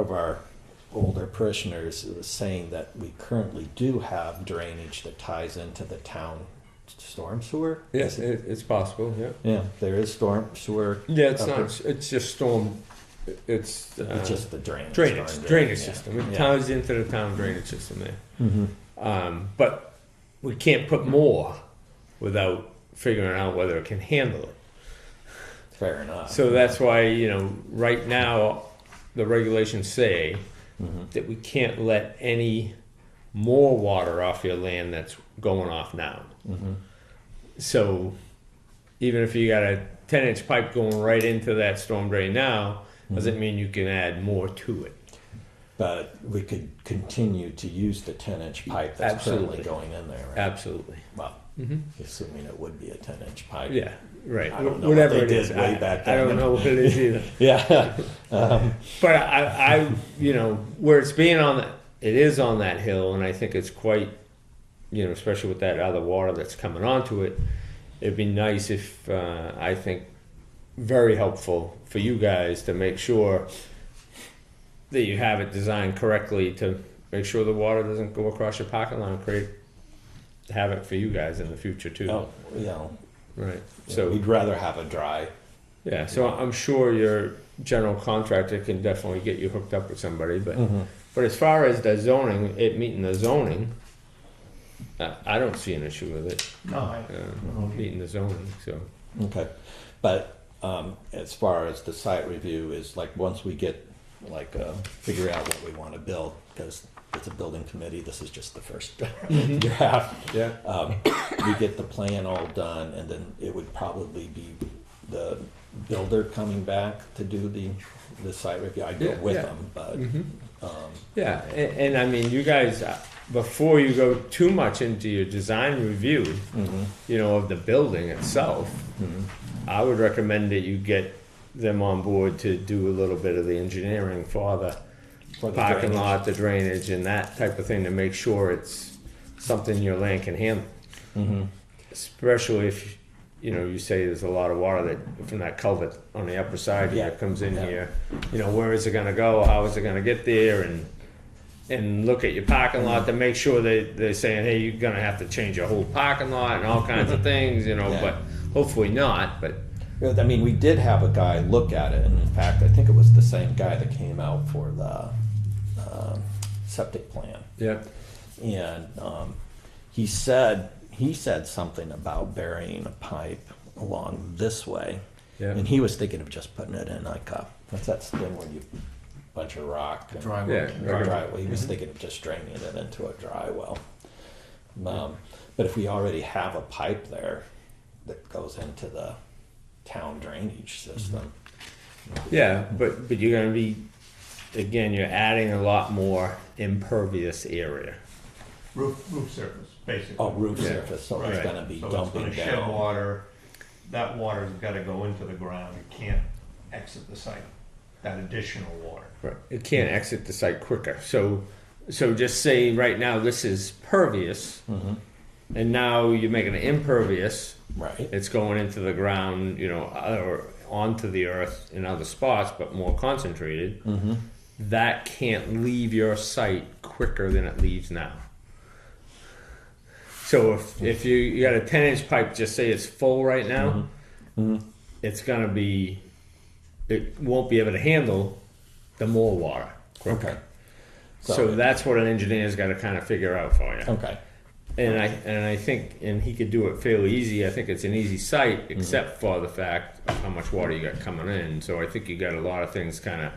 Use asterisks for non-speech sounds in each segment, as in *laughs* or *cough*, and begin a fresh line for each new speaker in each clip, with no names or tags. of our older parishioners was saying that we currently do have drainage that ties into the town storm sewer.
Yes, it, it's possible. Yeah,
Yeah, there is storm sewer.
yeah. It's
Okay.
not. It's just storm. It's, uh,
It's just the drainage.
drainage
storm
drainage
yeah.
system. It
Yeah.
ties into the town drainage system there.
Mhm.
Um, but we can't put more without figuring out whether it can handle it.
Fair enough.
So that's why, you know, right now, the regulations say that we can't let any more water off your land that's going off now. So even if you got a 10 inch pipe going right into that storm drain now, doesn't mean you can add more to it.
But we could continue to use the ten inch pipe that's currently
Absolutely.
going in there, right?
Absolutely.
Well, assuming it would be a ten inch pipe.
Yeah, right.
I don't know
Whatever
what they
it is.
did way
I,
back
I don't
then.
know what it is either.
*laughs* Yeah, *laughs* Um,
But I, I, you know, where it's being on that, it is on that hill, and I think it's quite, you know, especially with that other water that's coming onto it. It'd be nice if uh, I think very helpful for you guys to make sure that you have it designed correctly to make sure the water doesn't go across your pocket line and create havoc for you guys in the future too.
no, you know,
Right. So
we'd rather have a dry.
yeah, so I'm sure your general contractor can definitely get you hooked up with somebody, but but as far as the zoning, it meeting the zoning, I, I don't see an issue with it
No, I,
uh, meeting the zoning. So
Okay, but um, as far as the site review is like, once we get, like, uh, figure out what we want to build, because it's a building committee, this is just the first *laughs*
Mm-hmm.
draft.
yeah,
Um, We get the plan all done, and then it would probably be the builder coming back to do the, the site review. I'd go
Yeah,
with
yeah. Mm-hmm.
them, but, um,
yeah, and, and I mean, you guys, uh, before you go too much into your design review,
mhm,
you know, of the building itself,
mhm.
I would recommend that you get them on board to do a little bit of the engineering for the
For the
parking
drainage.
lot, the drainage and that type of thing to make sure it's something your land can handle.
Mm-hmm.
Especially if, you know, you say there's a lot of water that, from that culvert on the upper side here
Yeah.
comes in
Yeah.
here. You know, where is it gonna go? How is it gonna get there? And, and look at your parking lot to make sure that they're saying, hey, you're gonna have to change your whole parking lot and all kinds *laughs* of things, you know,
Yeah.
but hopefully not, but.
Yeah, I mean, we did have a guy look at it, and in fact, I think it was the same guy that came out for the um, septic plan.
Yeah.
And um, he said, he said something about burying a pipe along this way.
Yeah.
And he was thinking of just putting it in like a, what's that thing where you bunch of rock? and-
dry
Yeah.
wood.
Dry well. He was thinking of just draining it into a dry well. Um, but if we already have a pipe there that goes into the town drainage system,
Yeah, but but you're gonna be, again, you're adding a lot more impervious area.
Roof, roof surface, basically.
oh, roof
Yeah.
surface, so it's
Right.
gonna be
So
dumping
It's gonna shed
down.
water, that water's gotta go into the ground, it can't exit the site, that additional water.
Right. It can't exit the site quicker. So so just say right now this is pervious, and now you're making it impervious.
Right,
It's going into the ground, you know, uh, or onto the earth in other spots, but more concentrated. Mm-hmm. That can't leave your site quicker than it leaves now. So if, if you, you got a 10 inch pipe, just say it's full right now, Mm-hmm. it's going to be, it won't be able to handle the more water. quicker.
okay,
So,
So-
that's what an engineer's got to kind of figure out for you.
okay,
And I and I think and he could do it fairly easy. I think it's an easy site, except for the fact of how much water you got coming in. So I think you got a lot of things kind of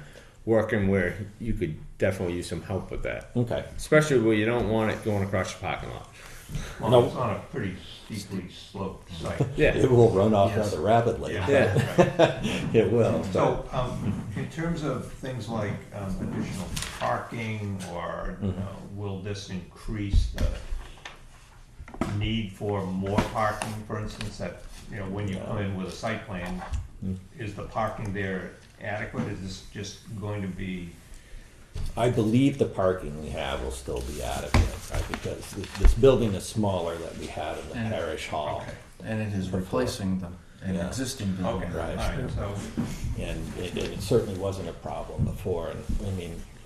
working where you could definitely use some help with that,
okay.
especially where you don't want it going across your parking lot.
No.
Well, it's on a pretty steeply sloped
*laughs*
site.
Yeah,
It will run off
Yes.
rather rapidly.
Yeah.
right.
*laughs* It will, but,
So, um, in terms of things like um, additional parking or, you know, will this increase the need for more parking, for instance, that, you know, when you come in with a site plan, is the parking there adequate? Is this just going to be,
I believe the parking we have will still be adequate, right, because th- this building is smaller that we had in the
And-
parish hall.
okay,
And it is replacing them, an
Yeah.
existing
okay, all
building.
Right.
right, so,
And it, it certainly wasn't a problem before, and, I mean,